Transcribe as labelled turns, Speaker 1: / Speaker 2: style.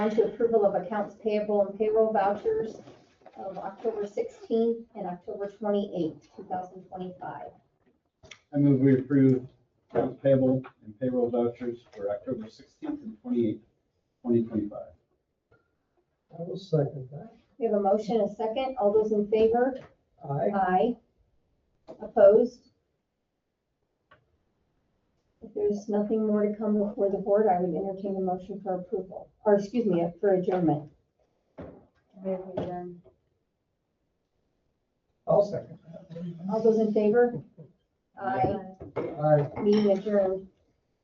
Speaker 1: on to approval of accounts payable and payroll vouchers of October 16th and October 28th, 2025.
Speaker 2: I move we approve accounts payable and payroll vouchers for October sixteenth and twenty-eighth, twenty twenty-five.
Speaker 3: I will second that.
Speaker 1: We have a motion, and a second. All those in favor?
Speaker 3: Aye.
Speaker 1: Aye. Opposed? If there's nothing more to come before the board, I would entertain a motion for approval, or excuse me, for adjournment. We have adjourned.
Speaker 3: I'll second that.
Speaker 1: All those in favor? Aye.
Speaker 3: Aye.
Speaker 1: Meeting adjourned.